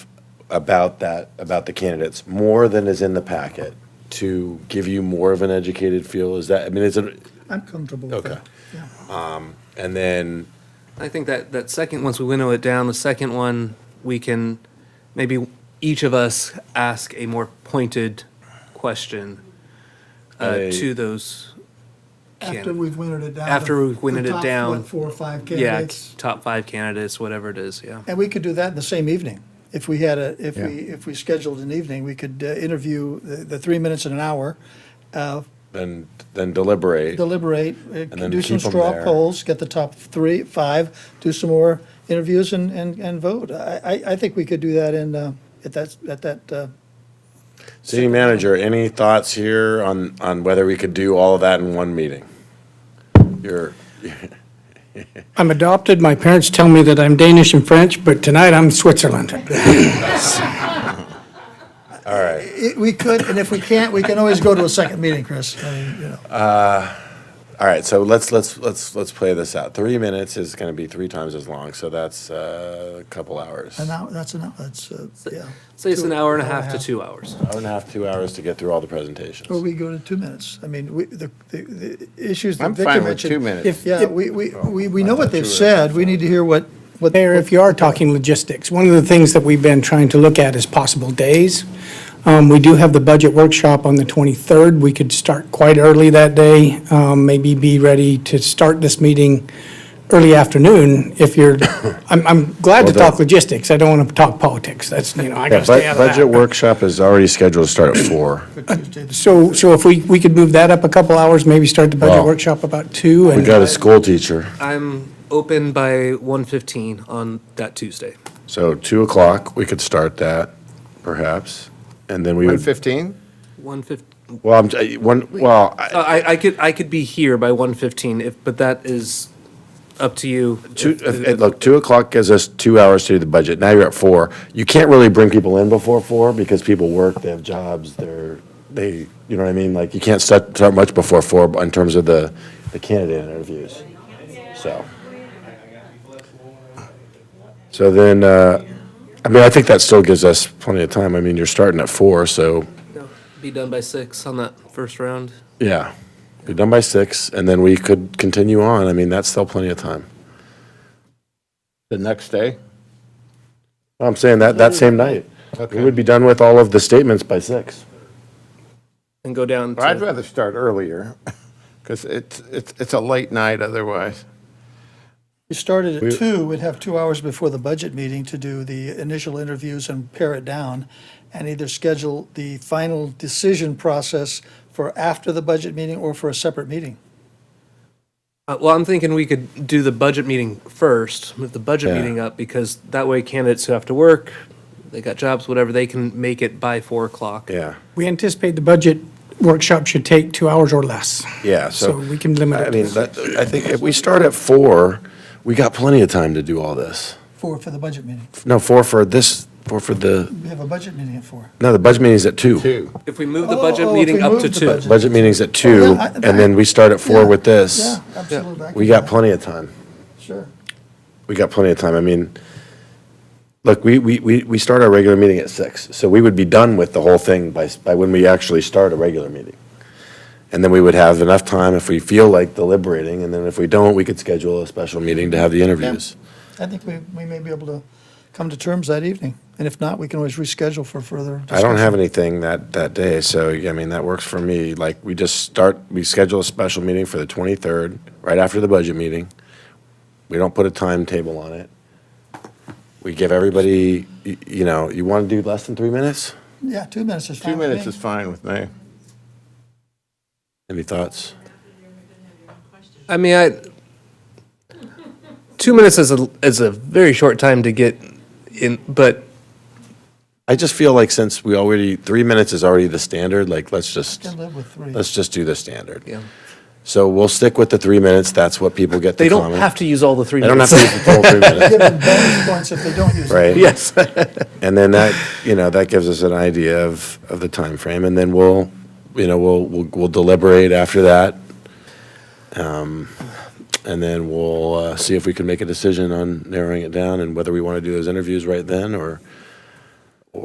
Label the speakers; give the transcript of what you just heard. Speaker 1: about that, about the candidates, more than is in the packet, to give you more of an educated feel? Is that, I mean, is it,
Speaker 2: I'm comfortable with
Speaker 1: Okay.
Speaker 2: that. Yeah.
Speaker 1: and then,
Speaker 3: I think that, that second, once we winnow it down, the second one, we can, maybe each of us ask a more pointed question uh,
Speaker 1: I-
Speaker 3: to those.
Speaker 2: After
Speaker 3: candid-
Speaker 2: we've wintered it down.
Speaker 3: After
Speaker 2: the-
Speaker 3: we've wintered
Speaker 2: the
Speaker 3: it
Speaker 2: top,
Speaker 3: down.
Speaker 2: what, Four or five
Speaker 3: Yeah,
Speaker 2: candidates.
Speaker 3: top five candidates, whatever it is, yeah.
Speaker 2: And we could do that in the same evening. If we had a, if
Speaker 1: Yeah.
Speaker 2: we, if we scheduled an evening, we could uh, interview the, the three minutes in an hour, uh,
Speaker 1: then, then deliberate.
Speaker 2: deliberate, uh,
Speaker 1: then
Speaker 2: do some
Speaker 1: keep 'em
Speaker 2: straw
Speaker 1: there.
Speaker 2: polls, get the top three, five, do some more interviews and, and, and vote. I, I, I think we could do that in, uh, at that, at that, uh,
Speaker 1: City manager, any thoughts here on, on whether we could do all of that in one meeting? Your,
Speaker 4: I'm adopted. My parents tell me that I'm Danish and French, but tonight I'm Switzerland.
Speaker 2: it- we could, and if we can't, we can always go to a second meeting, Chris. I mean, you know.
Speaker 1: all right, so let's, let's, let's, let's play this out. Three minutes is gonna be three times as long, so that's uh, a couple hours.
Speaker 2: An
Speaker 1: Hour
Speaker 2: hour, that's an hour, that's, uh, yeah.
Speaker 3: Say it's an
Speaker 2: Two-
Speaker 3: hour and a half to two hours.
Speaker 1: and a half, two hours to get through all the
Speaker 2: Or
Speaker 1: presentations.
Speaker 2: we go to two minutes. I mean, we, the, the, the issues that
Speaker 1: I'm
Speaker 2: Victor
Speaker 1: fine
Speaker 2: mentioned.
Speaker 1: with two minutes. Oh,
Speaker 2: If, yeah, we, we, we, we know
Speaker 1: I
Speaker 2: what
Speaker 1: thought you
Speaker 2: they've
Speaker 1: were-
Speaker 2: said. We need to hear what, what.
Speaker 4: Mayor, if you are talking logistics, one of the things that we've been trying to look at is possible days. Um, We do have the budget workshop on the 23rd. We could start quite early that day, um, maybe be ready to start this meeting early afternoon if you're, I'm, I'm glad to
Speaker 1: Well, the-
Speaker 4: talk logistics. I don't want to talk politics. That's, you know, I got to stay out of that.
Speaker 1: Budget workshop is already scheduled to start at four.
Speaker 4: So, so if we, we could move that up a couple hours, maybe start the budget
Speaker 1: Well,
Speaker 4: workshop about two
Speaker 1: We
Speaker 4: and.
Speaker 1: got a school teacher,
Speaker 3: I'm open by one fifteen on that Tuesday.
Speaker 1: so two o'clock, we could start that, perhaps, and then we
Speaker 5: One
Speaker 1: would,
Speaker 5: fifteen?
Speaker 3: One fif,
Speaker 1: well, I'm, I- one, well, uh, I-
Speaker 3: I, I could, I could be here by one fifteen if, but that is up to you.
Speaker 1: Two,
Speaker 3: If-
Speaker 1: if- look, two o'clock gives us two hours to do the budget. Now you're at four. You can't really bring people in before four because people work, they have jobs, they're, they, you know what I mean? Like, you can't start, start much before four in terms of the, the candidate interviews, so. So then, uh, I mean, I think that still gives us plenty of time. I mean, you're starting at four, so,
Speaker 3: No, Be done by six on that first round.
Speaker 1: yeah. We're done by six, and then we could continue on. I mean, that's still plenty of time.
Speaker 5: The next day?
Speaker 1: I'm saying that, that same night. We would be done with all of the statements by six.
Speaker 3: and go down
Speaker 5: I'd
Speaker 3: to,
Speaker 5: rather start earlier, because it's, it's, it's a late night otherwise.
Speaker 2: We started at two, we'd have two hours before the budget meeting to do the initial interviews and pare it down and either schedule the final decision process for after the budget meeting or for a separate meeting.
Speaker 3: uh, well, I'm thinking we could do the budget meeting first, move the budget
Speaker 1: Yeah.
Speaker 3: meeting up, because that way candidates who have to work, they got jobs, whatever, they can make it by four o'clock.
Speaker 1: Yeah,
Speaker 4: We anticipate the budget workshop should take two hours or less.
Speaker 1: yeah,
Speaker 4: So
Speaker 1: so,
Speaker 4: we can limit
Speaker 1: I
Speaker 4: it.
Speaker 1: mean, that, I think if we start at four, we got plenty of time to do all this.
Speaker 2: Four, for the budget meeting.
Speaker 1: No, four for this, four for the,
Speaker 2: We have a budget meeting at four.
Speaker 1: no, the budget meeting's at two.
Speaker 5: Two.
Speaker 3: If we move the
Speaker 2: Oh,
Speaker 3: budget
Speaker 2: oh, if
Speaker 3: meeting
Speaker 2: we
Speaker 3: up
Speaker 2: move
Speaker 3: to
Speaker 2: the
Speaker 3: two,
Speaker 2: budget.
Speaker 1: Budget meeting's at two,
Speaker 2: I-
Speaker 1: and then we start at four
Speaker 2: Yeah,
Speaker 1: with this.
Speaker 2: Yeah, absolutely. I
Speaker 1: We
Speaker 2: can
Speaker 1: got
Speaker 2: do
Speaker 1: plenty of time.
Speaker 2: that. Sure.
Speaker 1: We got plenty of time. I mean, look, we, we, we, we start our regular meeting at six, so we would be done with the whole thing by, s- by when we actually start a regular meeting. And then we would have enough time if we feel like deliberating, and then if we don't, we could schedule a special meeting to have the interviews.
Speaker 2: I think we, we may be able to come to terms that evening. And if not, we can always reschedule for further discussion.
Speaker 1: I don't have anything that, that day, so, I mean, that works for me. Like, we just start, we schedule a special meeting for the 23rd, right after the budget meeting. We don't put a timetable on it. We give everybody, y- you know, you want to do less than three minutes?
Speaker 2: Yeah, two minutes is
Speaker 5: Two
Speaker 2: fine with
Speaker 5: minutes
Speaker 2: me.
Speaker 5: is fine with me.
Speaker 1: Any thoughts?
Speaker 3: I mean, I, two minutes is a, is a very short time to get in, but
Speaker 1: I just feel like since we already, three minutes is already the standard, like, let's just,
Speaker 2: Can live with three.
Speaker 1: let's just do the standard.
Speaker 3: yeah.
Speaker 1: So we'll stick with the three minutes, that's what people get
Speaker 3: they
Speaker 1: to
Speaker 3: don't
Speaker 1: comment.
Speaker 3: have to use all the three
Speaker 1: They don't have
Speaker 3: minutes.
Speaker 1: to use the full three minutes,
Speaker 2: Give them bonus points if they don't use it.
Speaker 1: right?
Speaker 3: Yes.
Speaker 1: And then that, you know, that gives us an idea of, of the timeframe, and then we'll, you know, we'll, we'll we'll deliberate after that. Um, And then we'll uh, see if we can make a decision on narrowing it down and whether we want to do those interviews right then, or